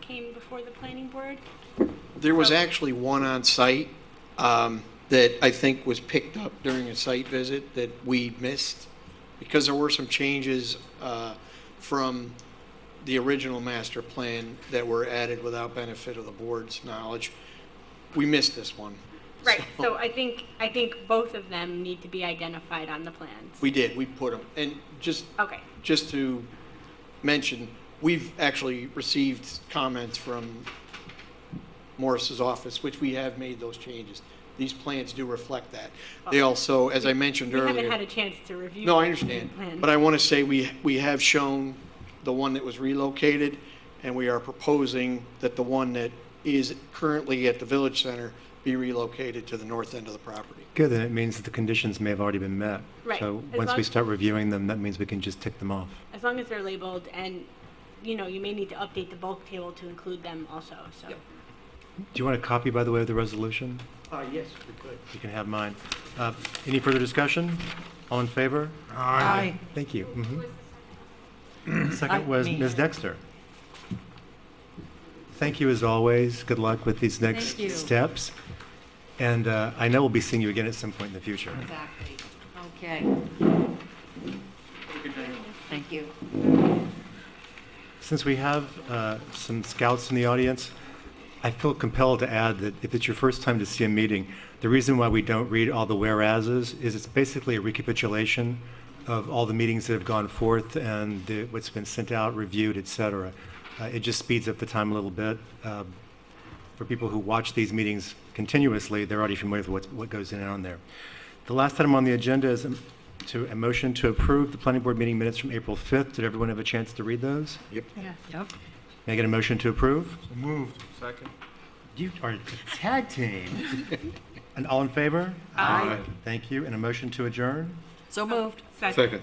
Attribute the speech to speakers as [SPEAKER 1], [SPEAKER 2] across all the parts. [SPEAKER 1] came before the planning board?
[SPEAKER 2] There was
[SPEAKER 1] So-
[SPEAKER 2] actually one on site um, that I think was picked up during a site visit that we missed because there were some changes uh, from the original master plan that were added without benefit of the board's knowledge. We missed this one.
[SPEAKER 1] Right, so I think, I think both of them need to be identified on the plans.
[SPEAKER 2] We did, we put them. And just,
[SPEAKER 1] Okay,
[SPEAKER 2] just to mention, we've actually received comments from Morris's office, which we have made those changes. These plans do reflect that. They also, as I mentioned
[SPEAKER 1] we
[SPEAKER 2] earlier.
[SPEAKER 1] haven't had a chance to review.
[SPEAKER 2] No, I
[SPEAKER 1] the
[SPEAKER 2] understand,
[SPEAKER 1] plan.
[SPEAKER 2] but I want to say we, we have shown the one that was relocated, and we are proposing that the one that is currently at the Village Center be relocated to the north end of the property.
[SPEAKER 3] Good, then it means that the conditions may have already been met.
[SPEAKER 1] Right.
[SPEAKER 3] So
[SPEAKER 1] As
[SPEAKER 3] once
[SPEAKER 1] long-
[SPEAKER 3] we start reviewing them, that means we can just tick them off.
[SPEAKER 1] As long as they're labeled and, you know, you may need to update the bulk table to include them also, so.
[SPEAKER 3] Do you want a copy, by the way, of the resolution?
[SPEAKER 2] Uh, yes, we could.
[SPEAKER 3] You can have mine. Uh, Any further discussion? All in favor?
[SPEAKER 4] Aye. Uh,
[SPEAKER 3] Thank you. Mhm. Second was
[SPEAKER 4] me.
[SPEAKER 3] Ms. Dexter. Thank you as always. Good luck with these next
[SPEAKER 4] Thank you.
[SPEAKER 3] steps. And uh, I know we'll be seeing you again at some point in the future.
[SPEAKER 4] Exactly. Okay. Thank you.
[SPEAKER 3] Since we have uh, some scouts in the audience, I feel compelled to add that if it's your first time to see a meeting, the reason why we don't read all the whereases is it's basically a recapitulation of all the meetings that have gone forth and the- what's been sent out, reviewed, et cetera. Uh, It just speeds up the time a little bit. Uh, For people who watch these meetings continuously, they're already familiar with what's- what goes in and on there. The last item on the agenda is um, to, a motion to approve the planning board meeting minutes from April 5th. Did everyone have a chance to read those?
[SPEAKER 4] Yep.
[SPEAKER 3] May I get a motion to approve?
[SPEAKER 5] Moved. Second.
[SPEAKER 3] You are a tag team. And all in favor?
[SPEAKER 5] Aye.
[SPEAKER 3] Thank you. And a motion to adjourn?
[SPEAKER 4] So moved.
[SPEAKER 5] Second.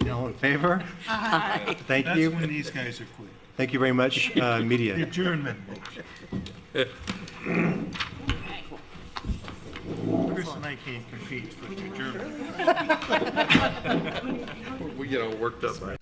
[SPEAKER 3] And All in favor? Aye. Thank
[SPEAKER 6] That's
[SPEAKER 3] you.
[SPEAKER 6] when these guys are quick.
[SPEAKER 3] Thank you very much, uh, media.
[SPEAKER 6] Adjournment. Chris and I can't compete for the adjournment.
[SPEAKER 5] We get all worked up, right?